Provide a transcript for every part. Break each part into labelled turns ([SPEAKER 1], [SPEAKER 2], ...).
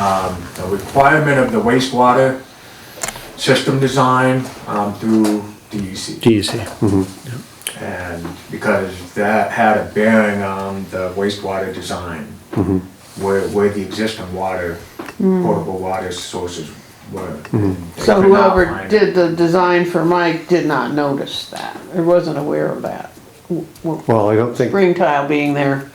[SPEAKER 1] um, a requirement of the wastewater system design, um, through DEC.
[SPEAKER 2] DEC.
[SPEAKER 1] And because that had a bearing on the wastewater design, where, where the existing water, potable water sources were. They
[SPEAKER 3] So
[SPEAKER 1] could not
[SPEAKER 3] whoever
[SPEAKER 1] find it.
[SPEAKER 3] did the design for Mike did not notice that, or wasn't aware of that. W- w-
[SPEAKER 2] Well, I don't think,
[SPEAKER 3] Ring tile being there,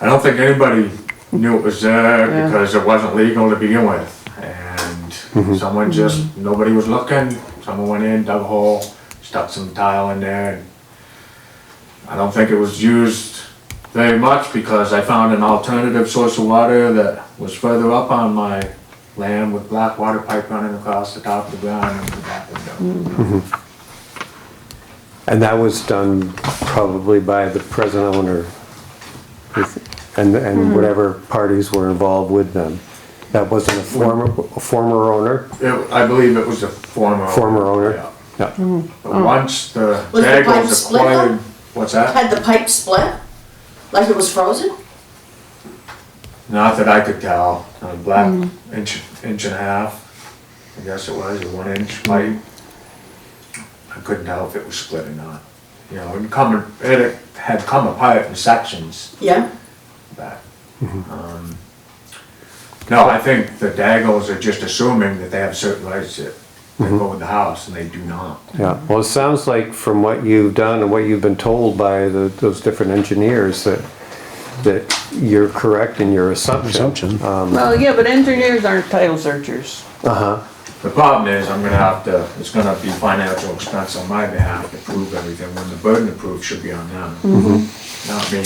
[SPEAKER 1] I don't think anybody knew it was there
[SPEAKER 3] Yeah.
[SPEAKER 1] because it wasn't legal to begin with. And
[SPEAKER 2] Mm-hmm.
[SPEAKER 1] someone just, nobody was looking, someone went in, dug a hole, stuck some tile in there. and I don't think it was used very much because I found an alternative source of water that was further up on my land with black water pipe running across the top of the ground and the back
[SPEAKER 4] Mm.
[SPEAKER 1] window.
[SPEAKER 2] and that was done probably by the present owner with- and, and whatever parties were involved with them. That wasn't a former, a former owner,
[SPEAKER 1] It- I believe it was a former. owner,
[SPEAKER 2] former owner?
[SPEAKER 1] yeah.
[SPEAKER 2] Yeah.
[SPEAKER 1] But once the
[SPEAKER 4] Oh. Was the
[SPEAKER 1] bag
[SPEAKER 4] pipe
[SPEAKER 1] was
[SPEAKER 4] split though?
[SPEAKER 1] acquired, what's that?
[SPEAKER 4] Had the pipe split? Like it was frozen?
[SPEAKER 1] Not that I could tell, a black inch, inch and a half, I guess it was, a one inch pipe. I couldn't tell if it was split or not, you know, it come, it had come apart in sections
[SPEAKER 4] Yeah?
[SPEAKER 1] back. Um, No, I think the Daggles are just assuming that they have certain rights that they go with the house and they do not.
[SPEAKER 2] Yeah, well, it sounds like from what you've done and what you've been told by the, those different engineers that, that you're correct in your assumption.
[SPEAKER 5] Assumption.
[SPEAKER 2] Um,
[SPEAKER 3] well, yeah, but engineers aren't title searchers.
[SPEAKER 2] Uh-huh,
[SPEAKER 1] The problem is, I'm gonna have to, it's gonna be financial expense on my behalf to prove everything, when the burden of proof should be on them, not me.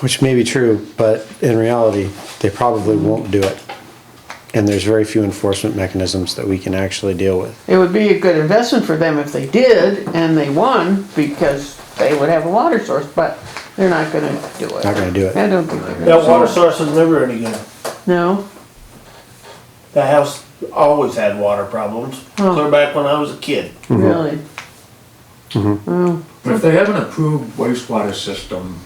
[SPEAKER 5] Which may be true, but in reality, they probably won't do it. And there's very few enforcement mechanisms that we can actually deal with.
[SPEAKER 3] It would be a good investment for them if they did, and they won, because they would have a water source, but they're not gonna do it.
[SPEAKER 5] Not gonna do it.
[SPEAKER 3] I don't think they're gonna,
[SPEAKER 6] That water source is never any good.
[SPEAKER 3] no,
[SPEAKER 6] That house always had water problems, clear back when I was a kid.
[SPEAKER 5] Mm-hmm.
[SPEAKER 3] really.
[SPEAKER 1] But if they have an approved wastewater system,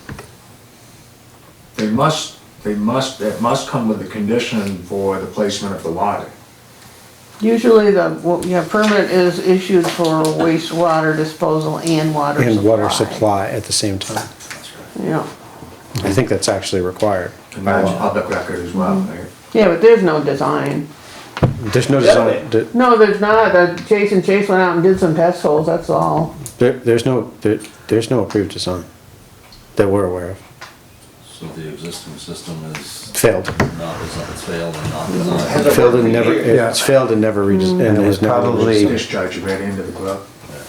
[SPEAKER 1] they must, they must, it must come with a condition for the placement of the water.
[SPEAKER 3] Usually the, well, yeah, permit is issued for wastewater disposal and water supply.
[SPEAKER 5] And water supply at the same time.
[SPEAKER 2] Mm-hmm.
[SPEAKER 3] Yeah,
[SPEAKER 5] I think that's actually required.
[SPEAKER 1] And that's public record as well,
[SPEAKER 2] Mm-hmm.
[SPEAKER 1] right?
[SPEAKER 3] yeah, but there's no design.
[SPEAKER 5] There's no design, there-
[SPEAKER 3] No, there's not, Uh, Jason Chase went out and did some test holes, that's all.
[SPEAKER 5] there, there's no, there, there's no approved design that we're aware of.
[SPEAKER 7] So the existing system is
[SPEAKER 5] Failed.
[SPEAKER 7] not, designed- it's failed and not designed.
[SPEAKER 5] Failed and never, it's failed and never redesigned.
[SPEAKER 2] And it was probably-
[SPEAKER 1] Discharge right into the club.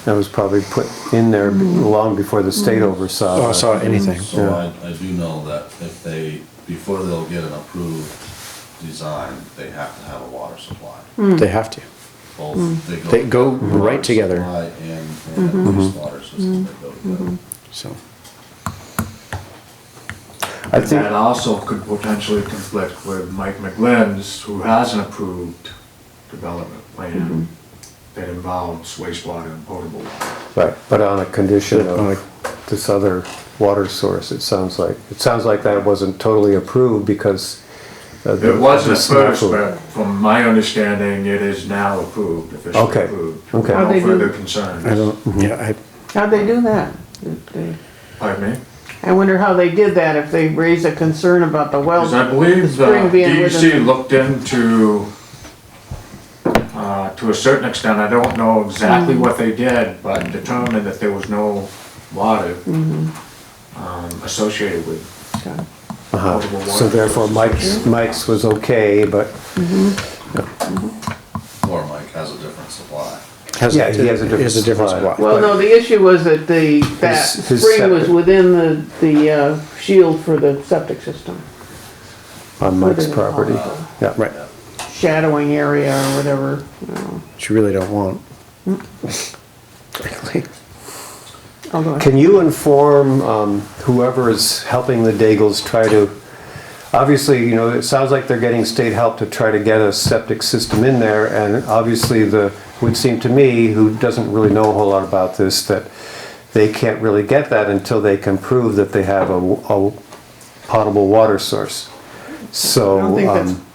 [SPEAKER 2] that was probably put in there long before the state oversaw.
[SPEAKER 5] Oh, I
[SPEAKER 2] that.
[SPEAKER 5] saw anything.
[SPEAKER 7] So I, I do know that if they, before they'll get an approved design, they have to have a water supply.
[SPEAKER 5] They have to.
[SPEAKER 7] Both, they go.
[SPEAKER 5] Mm. They go right
[SPEAKER 7] water
[SPEAKER 5] together. Mm-hmm.
[SPEAKER 7] supply And, and wastewater system, they go together.
[SPEAKER 5] So,
[SPEAKER 2] I
[SPEAKER 1] And that
[SPEAKER 2] think,
[SPEAKER 1] also could potentially conflict with Mike McGlynn's, who has an approved development
[SPEAKER 2] Mm-hmm.
[SPEAKER 1] plan that involves wastewater and potable water.
[SPEAKER 2] right, but on a condition
[SPEAKER 5] On
[SPEAKER 2] of this other water source, it sounds like. It sounds like that wasn't totally approved because. of the-
[SPEAKER 1] It wasn't
[SPEAKER 2] the
[SPEAKER 1] at first,
[SPEAKER 2] snafu.
[SPEAKER 1] but from my understanding, it is now approved, officially
[SPEAKER 2] Okay,
[SPEAKER 1] approved.
[SPEAKER 2] okay.
[SPEAKER 3] How'd
[SPEAKER 1] No
[SPEAKER 3] they do-
[SPEAKER 1] further concerns.
[SPEAKER 5] I don't, mm-hmm. yeah,
[SPEAKER 3] How'd they do that? Did they-
[SPEAKER 1] Pardon me?
[SPEAKER 3] I wonder how they did that, if they raised a concern about the well.
[SPEAKER 1] Because I believe uh, the
[SPEAKER 3] spring being with
[SPEAKER 1] DEC
[SPEAKER 3] them.
[SPEAKER 1] looked into, uh, to a certain extent, I don't know
[SPEAKER 3] Mm-hmm.
[SPEAKER 1] exactly what they did, but determined that there was no water
[SPEAKER 3] Mm-hmm.
[SPEAKER 1] um, associated with potable
[SPEAKER 2] Uh-huh.
[SPEAKER 1] water.
[SPEAKER 2] So therefore Mike's, Mike's was okay, but
[SPEAKER 7] Or Mike has a different supply.
[SPEAKER 5] I. has
[SPEAKER 2] Yeah, he has a different
[SPEAKER 5] Has a different
[SPEAKER 2] supply.
[SPEAKER 5] supply.
[SPEAKER 3] Well, no, the issue was that the, that
[SPEAKER 2] His- his
[SPEAKER 3] spring was
[SPEAKER 2] septic.
[SPEAKER 3] within the, the, uh, shield for the septic system.
[SPEAKER 2] on Mike's
[SPEAKER 3] Within the
[SPEAKER 2] property.
[SPEAKER 3] pond.
[SPEAKER 2] Yeah,
[SPEAKER 5] Right,
[SPEAKER 3] Shadowing area or whatever, you know,
[SPEAKER 5] which you really don't want.
[SPEAKER 3] although.
[SPEAKER 2] Can you inform um, whoever is helping the Daigles try to, obviously, you know, it sounds like they're getting state help to try to get a septic system in there, and obviously the, would seem to me, who doesn't really know a whole lot about this, that they can't really get that until they can prove that they have a, w- a potable water source. So.
[SPEAKER 3] I don't think that's
[SPEAKER 2] um,